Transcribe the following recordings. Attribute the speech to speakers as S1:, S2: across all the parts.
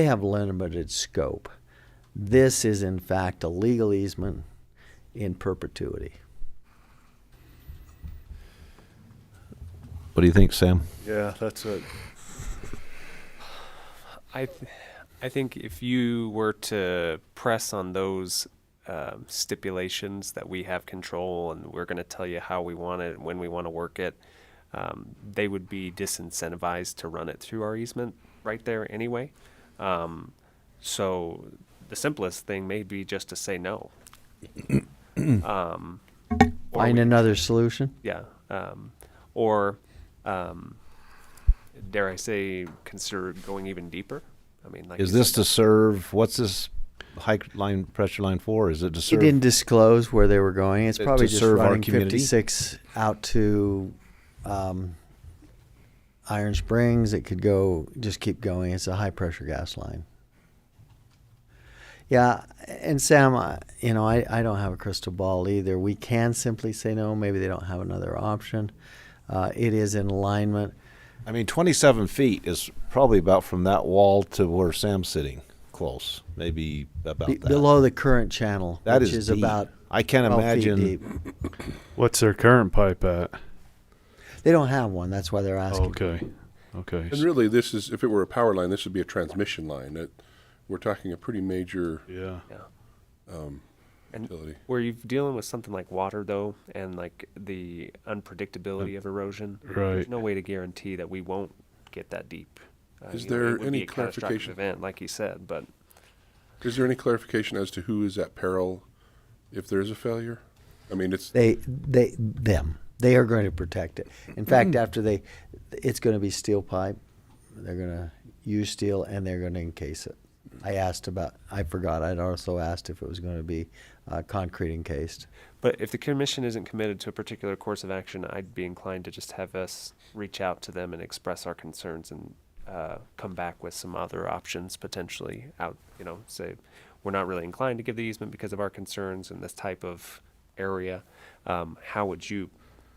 S1: They have limited scope. This is in fact a legal easement in perpetuity.
S2: What do you think, Sam?
S3: Yeah, that's it.
S4: I, th- I think if you were to press on those um, stipulations that we have control and we're going to tell you how we want it and when we want to work it, um, they would be disincentivized to run it through our easement right there anyway. Um, so the simplest thing may be just to say no. um, or
S1: Find
S4: we-
S1: another solution?
S4: yeah. Um, or, um, dare I say, consider going even deeper? I mean, like,
S2: Is
S4: you
S2: this
S4: said-
S2: to serve, what's this high line, pressure line for? Is it to
S1: He
S2: serve?
S1: didn't disclose where they were going. It's
S2: To-
S1: probably
S2: to
S1: just
S2: serve our
S1: running
S2: community?
S1: fifty-six out to, um, Iron Springs. It could go, just keep going. It's a high-pressure gas line. Yeah, and Sam, I- you know, I, I don't have a crystal ball either. We can simply say no. Maybe they don't have another option. Uh, it is in alignment.
S2: I mean, 27 feet is probably about from that wall to where Sam's sitting, close, maybe about
S1: Be-
S2: that.
S1: Below the current channel,
S2: That
S1: which
S2: is
S1: is
S2: deep.
S1: about
S2: I can't
S1: 12 feet
S2: imagine.
S1: deep.
S3: What's their current pipe at?
S1: They don't have one. That's why they're asking.
S3: Okay, okay.
S5: And really, this is, if it were a power line, this would be a transmission line. It, we're talking a pretty major
S3: Yeah.
S4: Yeah.
S5: Um, utility.
S4: Where you're dealing with something like water, though, and like the unpredictability of erosion,
S3: Right.
S4: there's no way to guarantee that we won't get that deep. Uh,
S5: Is
S4: you know, it
S5: there
S4: would be
S5: any
S4: a catastrophic
S5: clarification?
S4: Event, like you said, but
S5: Is there any clarification as to who is at peril if there is a failure? I mean, it's,
S1: They, they, them. They are going to protect it. In
S2: Hmm.
S1: fact, after they, it's going to be steel pipe. They're going to use steel and they're going to encase it. I asked about. I forgot. I'd also asked if it was going to be uh, concrete encased.
S4: But if the commission isn't committed to a particular course of action, I'd be inclined to just have us reach out to them and express our concerns and uh, come back with some other options potentially out, you know, say, we're not really inclined to give the easement because of our concerns in this type of area. Um, how would you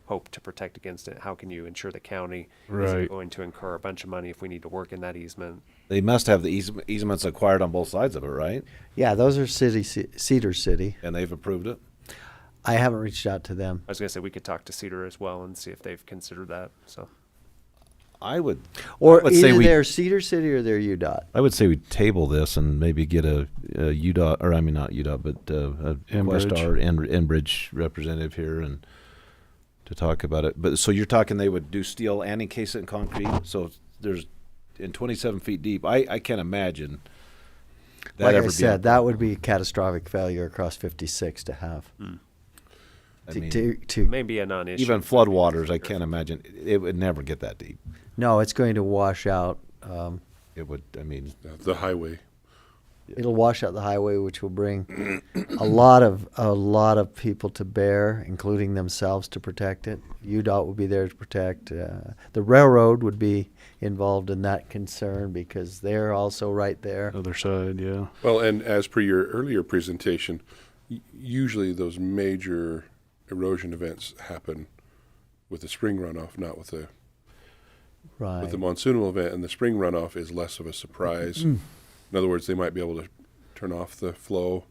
S4: hope to protect against it? How can you ensure the county
S3: Right.
S4: isn't going to incur a bunch of money if we need to work in that easement?
S2: They must have the easem- easements acquired on both sides of it, right?
S1: Yeah, those are city Cedar City.
S2: And they've approved it?
S1: I haven't reached out to them.
S4: I was gonna say, we could talk to Cedar as well and see if they've considered that, so.
S2: I would,
S1: Or
S2: Let's say
S1: either
S2: we-
S1: they're Cedar City or they're UDOT.
S2: I would say we table this and maybe get a, a UDOT, or I mean, not UDOT, but uh, a
S3: Enbridge.
S2: Questar, En- Enbridge representative here and to talk about it. But, so you're talking they would do steel and encase it in concrete? So there's, in twenty-seven feet deep, I, I can't imagine that
S1: Like
S2: ever
S1: I
S2: being-
S1: said, that would be a catastrophic failure across 56 to have.
S2: I
S1: To-
S2: mean,
S1: to- to
S4: Maybe a non-issue.
S2: Even floodwaters, I can't imagine, it would never get that deep.
S1: No, it's going to wash out. Um,
S2: It would, I mean,
S5: uh, the highway.
S1: it'll wash out the highway, which will bring a lot of a lot of people to bear, including themselves, to protect it. UDOT will be there to protect. Uh, the railroad would be involved in that concern because they're also right there.
S3: Other side, yeah.
S5: Well, and as per your earlier presentation, y- usually those major erosion events happen with the spring runoff, not with the
S1: Right. Mm.
S5: with the monsoonal event, and the spring runoff is less of a surprise. In other words, they might be able to turn off the flow.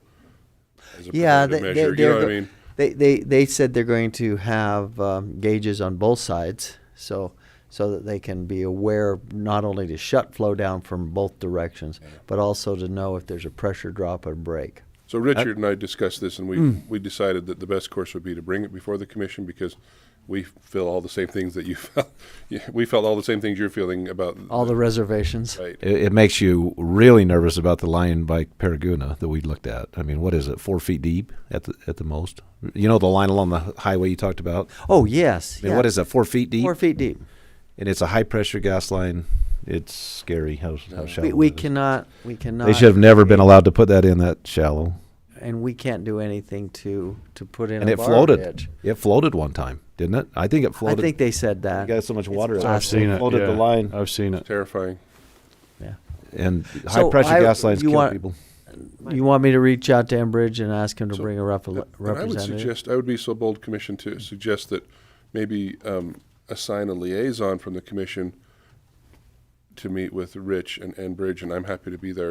S5: As a
S1: yeah, they,
S5: preventative
S1: they,
S5: measure.
S1: they're
S5: you know what I
S1: go-
S5: mean.
S1: They, they they said they're going to have um, gauges on both sides, so so that they can be aware not only to shut flow down from both directions, but also to know if there's a pressure drop or break.
S5: So
S1: Uh,
S5: Richard and I discussed this, and we
S1: hmm.
S5: we decided that the best course would be to bring it before the commission because we feel all the same things that you felt. Yeah, we felt all the same things you're feeling about
S1: All the reservations.
S5: right.
S2: it, it makes you really nervous about the line by Paraguna that we looked at. I mean, what is it, four feet deep at the, at the most? You know, the line along the highway you talked about?
S1: Oh yes.
S2: I mean,
S1: yeah.
S2: what is it, four feet deep?
S1: Four feet deep.
S2: And it's a high pressure gas line. It's scary how, how shallow.
S1: We, we
S2: that is.
S1: cannot. We cannot.
S2: They should have never been allowed to put that in that shallow.
S1: And we can't do anything to to put in.
S2: And
S1: a
S2: it
S1: bar
S2: floated.
S1: ditch.
S2: It floated one time, didn't it? I think it
S1: I
S2: floated.
S1: think they said that.
S2: You got so much water.
S1: It's
S2: in it.
S3: I've seen it.
S2: Floated
S3: yeah.
S2: the line.
S3: I've seen it.
S5: terrifying.
S1: Yeah.
S2: And high pressure
S1: I-
S2: gas lines
S1: you
S2: kill
S1: want-
S2: people.
S1: You want me to reach out to Enbridge and ask him to
S5: So,
S1: bring a rep-
S5: And I would
S1: representative?
S5: suggest I would be so bold, commission, to suggest that maybe um, assign a liaison from the commission to meet with Rich and, and Bridge, and I'm happy to be there